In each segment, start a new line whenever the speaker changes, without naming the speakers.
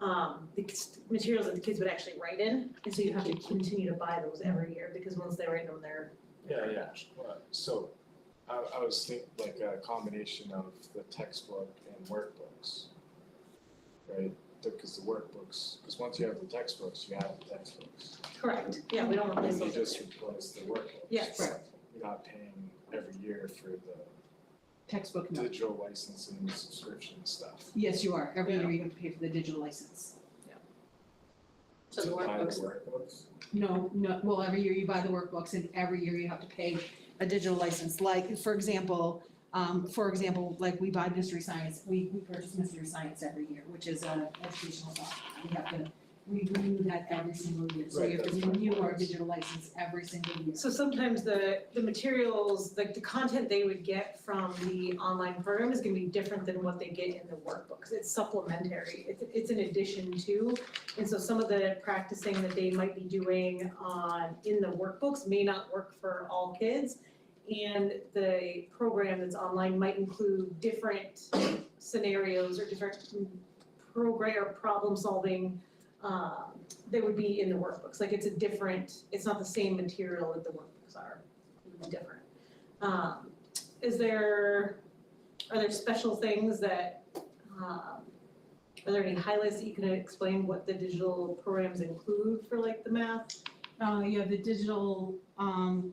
um, the kids- materials that the kids would actually write in, and so you have to continue to buy those every year, because once they write them, they're
Yeah, yeah, Well, so I I was thinking like a combination of the textbook and workbooks. Right, because the workbooks, because once you have the textbooks, you have the textbooks.
Correct, yeah, we don't replace
And you
those.
just replace the workbooks.
Yes.
You're not paying every year for the
Textbook no.
digital licensing and subscription stuff.
Yes, you are. Every
Yeah.
year you have to pay for the digital license.
So the
To buy
workbooks,
workbooks.
No, no, well, every year you buy the workbooks and every year you have to pay a digital license. Like, for example, um, for example, like we buy mystery science, we, we purchase mystery science every year, which is a educational software. We have to, we renew that every single year. So we
Right,
have to
that's my
renew our
point.
digital license every single year.
So sometimes the, the materials, like the content they would get from the online program is gonna be different than what they get in the workbooks. It's supplementary, it's, it's an addition to. And so some of the practicing that they might be doing on, in the workbooks may not work for all kids. And the program that's online might include different scenarios or different mm, program or problem solving, um, they would be in the workbooks, like it's a different, it's not the same material that the workbooks are, It's different. Um, is there, are there special things that, um, are there any highlights that you can explain what the digital programs include for like the math?
Uh, yeah, the digital, um,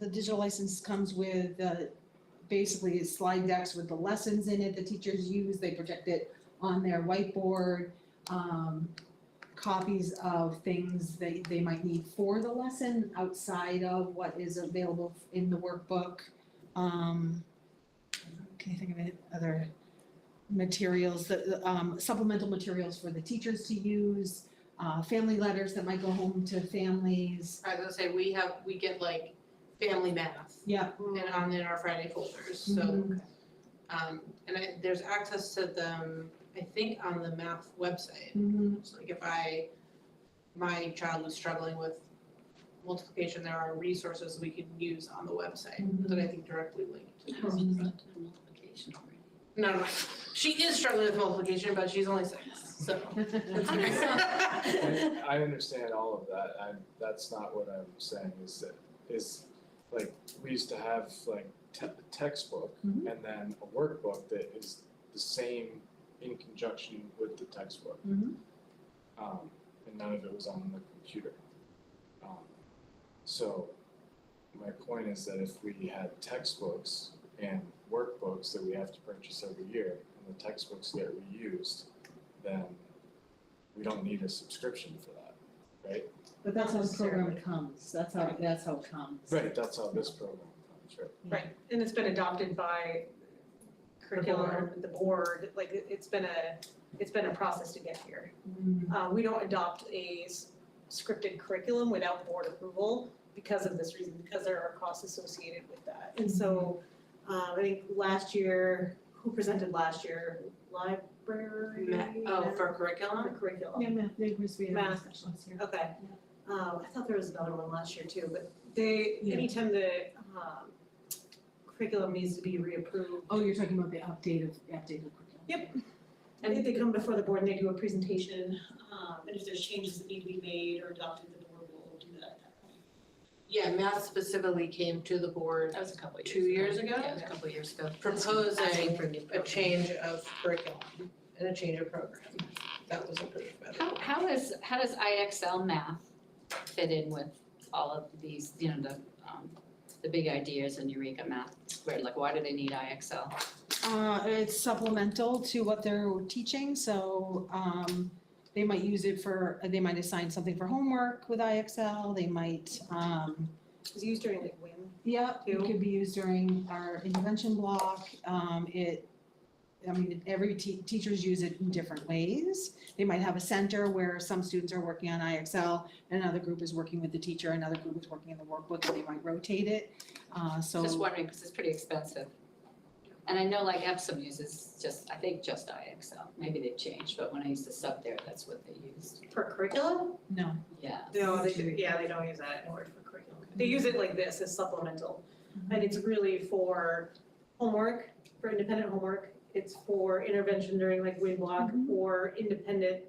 the digital license comes with, uh, basically slide decks with the lessons in it the teachers use, they project it on their whiteboard. Um, copies of things they, they might need for the lesson outside of what is available in the workbook. Um, can you think of any other materials, that- the, um, supplemental materials for the teachers to use? Uh, family letters that might go home to families.
I was gonna say, we have, we get like family math
Yeah.
and on in our Friday folders, so.
Mhm.
Um, and I, there's access to them, I think, on the math website.
Mhm.
So like if I, my child was struggling with multiplication, there are resources we can use on the website
mm-hmm,
that I think directly link.
I was in front of multiplication
No, no, she is struggling with multiplication, but she's only six, so.
mm-hmm.
I I understand all of that, I, that's not what I'm saying, is that, is, like, we used to have like te- a textbook
Mhm.
and then a workbook that is the same in conjunction with the textbook.
Mhm.
Um, and none of it was on the computer. Um, so, my point is that if we had textbooks and workbooks that we have to purchase every year, and the textbooks get reused, then we don't need a subscription for that, right?
But that's how the program
Necessarily.
comes, that's how, that's how it comes.
Right, that's how this program comes, right?
Right, and it's been adopted by curriculum, the board, like it- it's been a, it's been a process to get here.
Mm.
Uh, we don't adopt a s- scripted curriculum without board approval because of this reason, because there are costs associated with that. And so, uh, I think last year, who presented last year? Library?
Ma- Oh, for curriculum?
For curriculum.
Yeah, math, they must be.
Math.
here.
Okay. Um, I thought there was another one last year too, but they,
Yeah.
anytime the, um, curriculum needs to be reapproved,
Oh, you're talking about the updated, updated curriculum.
Yep. I think they come before the board and they do a presentation, um, and if there's changes that need to be made or adopted, the board will do that at that point.
Yeah, math specifically came to the board
That was a couple years ago.
two years ago.
Yeah, it was a couple years ago. Asking
proposing
for new
a
programs.
change of curriculum and a change of program. That was approved by the
How,
board.
how is, how does IXL math fit in with all of these, you know, the, um, the big ideas in Eureka Math Squared? Like, why do they need IXL?
Uh, it's supplemental to what they're teaching, so, um, they might use it for, they might assign something for homework with IXL, they might, um,
It was used during like WIM
yeah, it
Two.
could be used during our intervention block, um, it, I mean, every te- teachers use it in different ways. They might have a center where some students are working on IXL, and another group is working with the teacher, another group is working in the workbook, and they might rotate it, uh, so.
Just wondering, because it's pretty expensive. And I know like Epsom uses just, I think just IXL. Maybe they've changed, but when I used to sub there, that's what they used.
For curriculum?
No,
Yeah.
No, they, do- yeah, they don't use that in word for curriculum. They use it like this as supplemental. And it's really for Mm-hmm. homework, for independent homework. It's for intervention during like wind block or independent